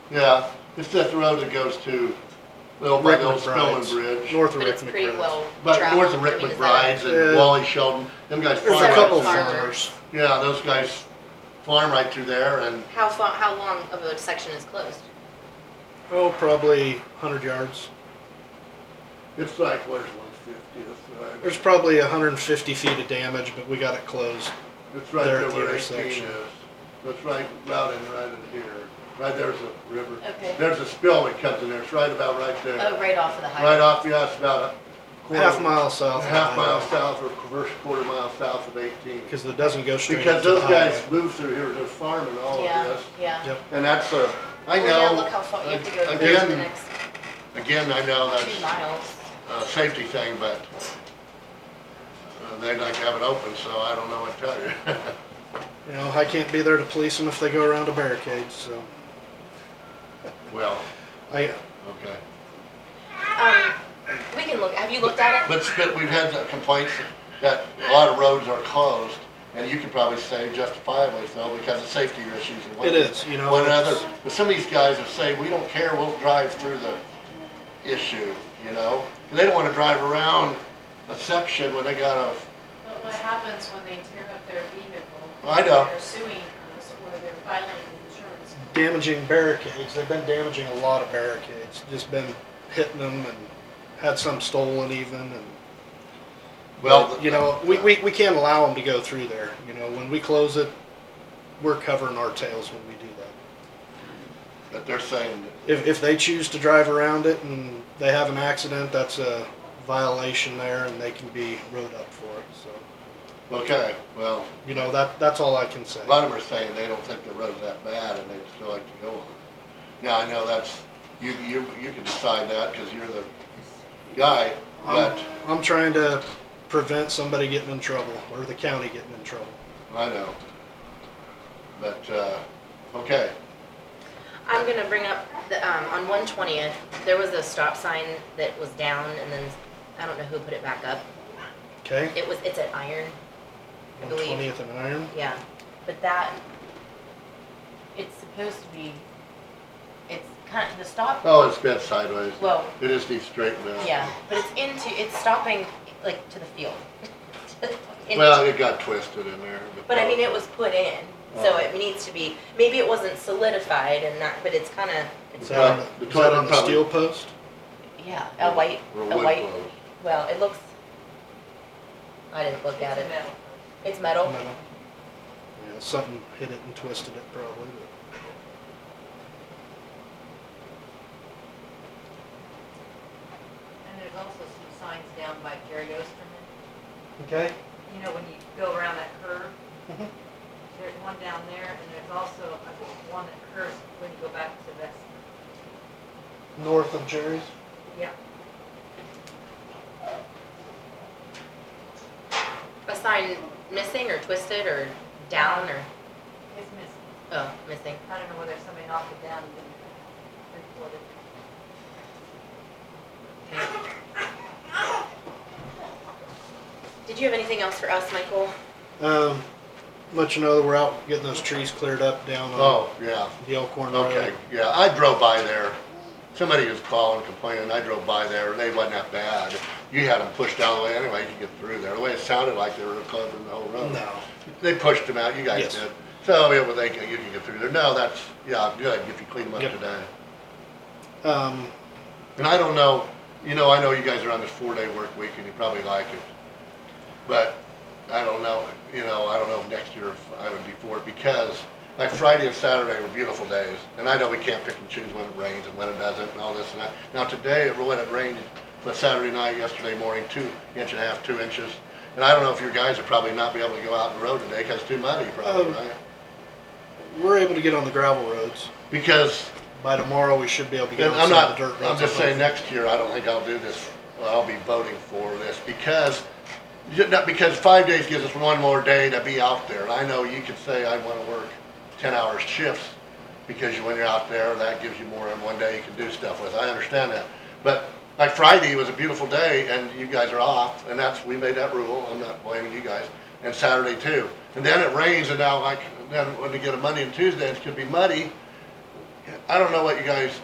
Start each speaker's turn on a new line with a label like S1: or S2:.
S1: Yeah, it's that road that goes to the old, by the old Spillman
S2: McBride's.
S1: Bridge.
S2: North of
S3: But
S2: Rick
S3: it's pretty
S2: McBride.
S3: well
S1: But
S3: traveled.
S1: north of Rick
S3: I mean, is
S1: McBride's and
S2: Yeah.
S1: Wally Sheldon, them guys
S2: There's
S1: farm
S2: a
S3: Farmers.
S2: couple
S1: right,
S2: farmers.
S1: yeah, those guys farm right through there and,
S3: that- How far, how long of a section is closed?
S2: Oh, probably hundred yards.
S1: It's like, where's one fiftieth?
S2: There's probably hundred and fifty feet of damage, but we got it closed.
S1: It's right
S2: there
S1: there
S2: at the
S1: where eighteen
S2: intersection.
S1: is. That's right, about in, right in here. Right there's a river.
S3: Okay.
S1: There's a spill that comes in there. It's right about right there.
S3: Oh, right off of the highway.
S1: Right off, yeah, it's about a quarter.
S2: Half mile south.
S1: Half mile south or first quarter mile south of eighteen.
S2: Because it doesn't go straight
S1: Because
S2: up to the
S1: those guys
S2: highway.
S1: move through here, they're farming all of
S3: Yeah,
S1: this.
S3: yeah.
S2: Yep.
S1: And that's a, I
S3: Well, yeah, Look
S1: know,
S3: how far you have to go to
S1: again,
S3: get to the next
S1: again, I know that's
S3: two miles.
S1: a safety thing, but uh, they'd like to have it open, so I don't know what to tell you.
S2: You know, I can't be there to police them if they go around a barricade, so
S1: Well,
S2: I,
S1: okay.
S3: Um, we can look, have you looked at it?
S1: But spit, we've had the complaints that a lot of roads are closed, and you can probably say justifiably so because of safety issues and one.
S2: It is, you know,
S1: One
S2: it's-
S1: another, but some of these guys are saying, we don't care, we'll drive through the issue, you know? And They don't wanna drive around a section when they got a,
S4: But what happens when they tear up their vehicle?
S1: I know.
S4: They're suing us or they're filing insurance.
S2: damaging barricades, they've been damaging a lot of barricades, just been hitting them and had some stolen even and.
S1: well.
S2: You know, we, we, we can't allow them to go through there, you know, when we close it, we're covering our tails when we do that.
S1: But they're saying,
S2: If, if they choose to drive around it and they have an accident, that's a violation there and they can be rode up for it, so.
S1: okay, well,
S2: You know, that, that's all I can say.
S1: a lot of them are saying they don't think the road's that bad and they'd still like to go on it. Now, I know that's, you, you, you can decide that, cause you're the guy, but.
S2: I'm, I'm trying to prevent somebody getting in trouble or the county getting in trouble.
S1: I know. But, uh, okay,
S3: I'm gonna bring up the, um, on one twentieth, there was a stop sign that was down and then, I don't know who put it back up.
S2: Okay?
S3: It was, it's at Iron, I
S2: One
S3: believe.
S2: twentieth and Iron.
S3: yeah, but that, it's supposed to be, it's kind of, the stop,
S1: oh, it's bent sideways.
S3: well,
S1: It just needs straightened out.
S3: Yeah, but it's into, it's stopping like to the field. Into-
S1: Well, it got twisted in there.
S3: But I mean, it was put in, so
S1: Oh.
S3: it needs to be, maybe it wasn't solidified and not, but it's kinda,
S2: Is
S3: it's,
S2: that on
S1: The
S2: the, is that
S1: toilet
S2: on the
S1: probably-
S2: steel post?
S3: yeah, a white,
S1: Or
S3: a
S1: wood
S3: white,
S1: clothes.
S3: well, it looks, I didn't look at it.
S4: It's a metal.
S3: It's metal,
S2: No. Yeah, something hit it and twisted it probably, but.
S5: And there's also some signs down by Gary Osterman,
S2: Okay,
S5: you know, when you go around that curve.
S2: Mhm.
S3: Mm-hmm.
S5: There's one down there, and there's also a- one that curves when you go back to that,
S2: north of Jerry's.
S5: yeah.
S3: a sign missing or twisted or down or,
S5: It's missing,
S3: oh, missing.
S5: I don't know whether somebody knocked it down and then reported.
S3: Did you have anything else for us, Michael?
S2: Um, let you know that we're out getting those trees cleared up down on
S1: Oh, yeah,
S2: the Elkhorn Road.
S1: okay, yeah, I drove by there. Somebody was calling, complaining, I drove by there, they wasn't that bad. You had them pushed out of the way anyway, you could get through there. The way it sounded like they were covering the whole road.
S2: Uh, No,
S1: They pushed them out, you guys
S2: Yes.
S1: did. So, yeah, well, they, can- you can get through there. No, that's, yeah, good, if you clean them up
S2: Yep.
S1: today.
S2: um,
S1: And I don't know, you know, I know you guys are on this four-day work week and you probably like it. But I don't know, you know, I don't know if next year if I would be for it because like Friday and Saturday were beautiful days. And I know we can't pick and choose when it rains and when it doesn't and all this and that. Now today, it- when it rained, but Saturday night, yesterday morning, two inch and a half, two inches. And I don't know if your guys would probably not be able to go out on the road today because it's too muddy probably,
S2: Um,
S1: right?
S2: we're able to get on the gravel roads.
S1: Because
S2: By tomorrow, we should be able to get
S1: And
S2: on
S1: I'm
S2: some of
S1: not,
S2: the dirt roads.
S1: I'm just
S2: up
S1: saying,
S2: there.
S1: next year, I don't think I'll do this, well, I'll be voting for this, because, ju- not because five days gives us one more day to be out there, and I know you could say, I wanna work ten hour shifts, because you- when you're out there, that gives you more in one day you can do stuff with, I understand that. But, like Friday was a beautiful day, and you guys are off, and that's, we made that rule, I'm not blaming you guys, and Saturday too. And then it rains, and now like, then when you get a Monday and Tuesday, it's gonna be muddy, I don't know what you guys,